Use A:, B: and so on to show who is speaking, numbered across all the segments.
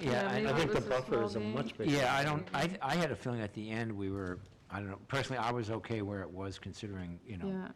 A: Yeah, I-
B: maybe
A: I
C: I think the
B: this
C: buffer is a
B: small
C: much
B: game.
C: bigger.
A: Yeah, I don't, I, I had a feeling at the end we were, I don't know, personally, I was okay where it was considering, you know,
B: Yeah,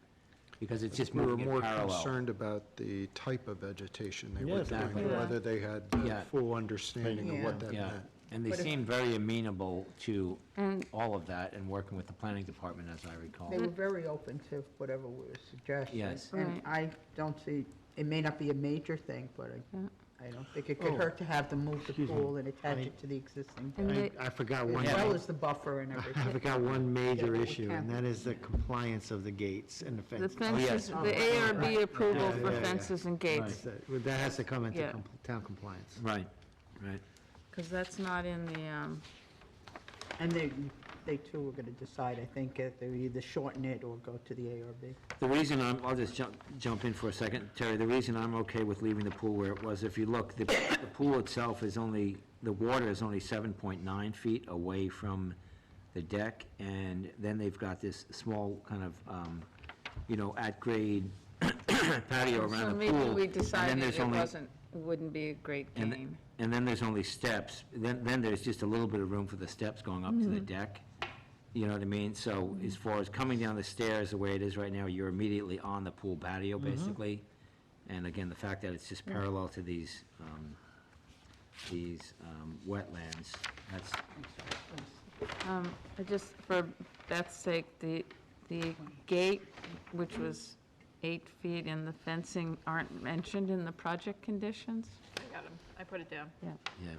A: because it's just
D: We were
A: moving
D: more
A: it parallel.
D: concerned about the type of vegetation they were
C: Yes,
D: doing,
A: exactly.
D: and
B: Yeah.
D: whether they had the
A: Yeah.
D: full understanding of what that
A: Yeah,
D: meant.
A: and they
C: But if- Mm.
A: seemed very amenable to
B: and
A: all of that and working with the planning department, as I recall.
C: They were very open to whatever we were suggesting.
A: Yes.
C: And I don't see, it may not be a major thing, but
B: Yeah.
C: I, I don't think it could
D: Oh.
C: hurt to have them move the
D: Excuse me.
C: pool and attach
D: I-
C: it to the existing,
B: And
D: I,
B: they-
D: I forgot
C: as
D: one,
C: well
D: ma-
C: as the buffer and everything.
D: I forgot one major
C: Yeah.
D: issue, and that is the compliance of the gates and the
B: the
D: fence.
B: fences,
A: yes.
B: the
C: Oh, right,
B: ARB approval
D: Yeah,
B: for
D: yeah, yeah.
B: fences and gates,
D: That that has to come into
B: Yeah.
D: com- town compliance.
A: Right, right.
B: because that's not in the, um,
C: And they, they too were gonna decide, I think, if they would either shorten it or go to the ARB.
A: The reason I'm, I'll just jump, jump in for a second, Terry, the reason I'm okay with leaving the pool where it was, if you look, the, the pool itself is only, the water is only seven point nine feet away from the deck, and then they've got this small kind of, um, you know, at-grade patio
B: so
A: around the
B: maybe
A: pool.
B: we
A: and then
B: decided
A: there's
B: it
A: only-
B: wasn't, wouldn't be a great
A: And-
B: game.
A: And then there's only steps, then, then there's just a little bit of room for the steps going up to the deck. You know what I mean? So as far as coming down the stairs, the way it is right now, you're immediately on the pool patio, basically. And again, the fact that it's just parallel to these, um, these, um, wetlands, that's,
B: Um, I Just for Beth's sake, the, the gate, which was eight feet and the fencing aren't mentioned in the project conditions?
E: I got 'em. I put it down.
A: yeah,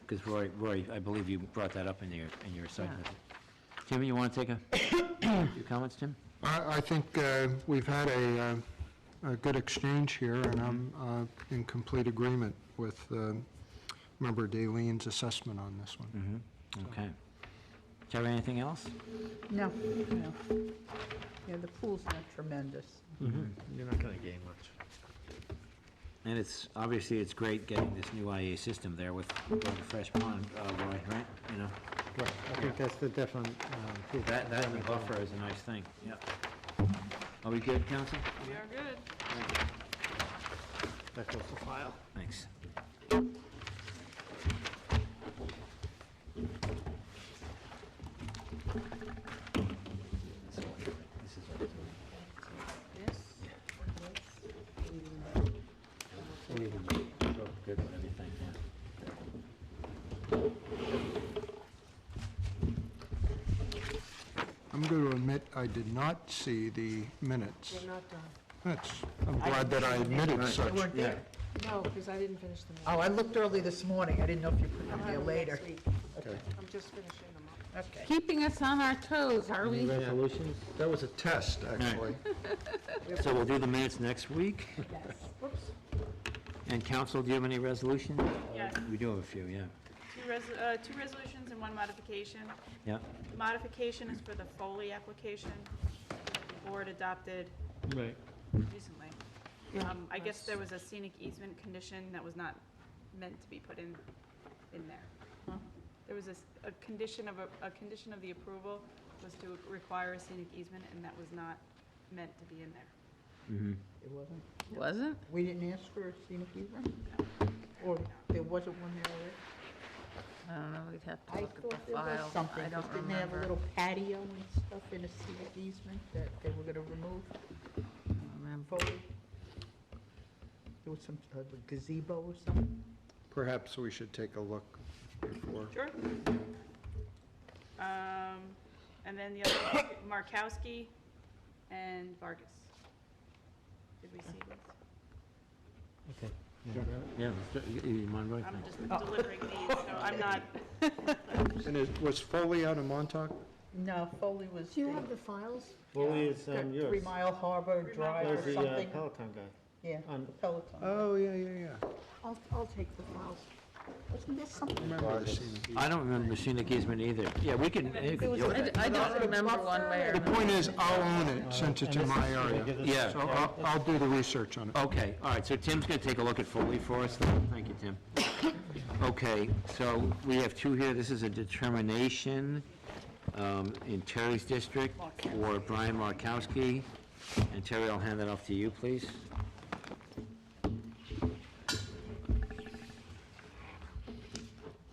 A: because Roy, Roy, I believe you brought that up in your, in your site
B: Yeah.
A: visit. Tim, you want to take a, your comments, Tim?
D: I, I think uh, we've had a, uh, a good exchange here, and I'm uh, in complete agreement with uh, Member Daleen's assessment on this one.
A: Mm-hmm, okay. Terry, anything else?
C: No, no. Yeah, the pool's not tremendous.
D: You're not going to gain much.
A: And it's, obviously, it's great getting this new IA system there with with the fresh pond, uh, Roy, right? You know,
D: Right, I think that's the definite. um,
A: that, that and the buffer is a nice thing, yeah. Are we good, council?
E: We are good.
D: That goes to file.
A: Thanks. Good with everything, yeah.
D: I'm going to admit, I did not see the minutes.
E: We're not done.
D: That's, I'm glad that I admitted
C: You
D: such.
C: weren't there?
E: No, because Oh, I didn't finish them.
C: Oh, I looked early this morning. I didn't know if you put
E: I'll
C: them
E: have
C: there
E: 'em
C: later.
E: next week. I'm just finishing them up.
C: Okay.
B: Keeping us on our toes, are we?
D: Resolutions? That was a test, actually.
A: So we'll do the minutes next week?
E: Whoops.
A: And council, do you have any resolutions?
E: Yes.
A: We do have a few, yeah.
E: Two res- uh, two resolutions and one modification.
A: Yeah,
E: The Modification is for the Foley application the board adopted
D: Right.
E: recently. Um, I guess there was a scenic easement condition that was not meant to be put in, in there. There was a, s- a condition of, a a condition of the approval was to require a scenic easement, and that was not meant to be in there.
A: mhm.
C: It wasn't,
B: Wasn't?
C: we didn't ask for a scenic easement? Or there wasn't one there already?
B: I don't know, we'd have to
C: I
B: look at
C: thought
B: the
C: there was
B: file.
C: something,
B: I
C: 'cause
B: don't
C: didn't they have a
B: remember.
C: little patio and stuff in a scenic easement that they were gonna remove
B: I don't remember.
C: fully? There was some sort of gazebo or something?
D: Perhaps we should take a look before.
E: Sure. Um, and then the other, Markowski and Vargas. Did we see these?
A: Yeah, you- you mind, Roy?
E: I'm just delivering these, so I'm not,
D: And it was Foley out of Montauk?
C: No, Foley was
F: Do you
C: the-
F: have the files?
G: Foley is
C: the
G: um, yours.
C: Three Mile Harbor
E: Mile
C: Drive
G: There's
C: or
G: the uh,
C: something,
G: Peloton guy.
C: yeah,
G: on-
C: the Peloton.
D: Oh, yeah, yeah, yeah.
F: I'll, I'll take the files.
C: Wasn't there
D: I
C: something?
D: Remember the scene.
A: I don't remember scenic easement either. Yeah, we can, you can deal with
B: I
A: it.
B: d- I don't remember one way or
D: The
B: another.
D: point is, I'll own it since it's in my area.
A: Yeah.
D: So I'll, I'll do the research on it.
A: Okay, all right, so Tim's going to take a look at Foley for us. then. Thank you, Tim. Okay, so we have two here. This is a determination um, in Terry's district for Brian Markowski. And Terry, I'll hand that off to you, please.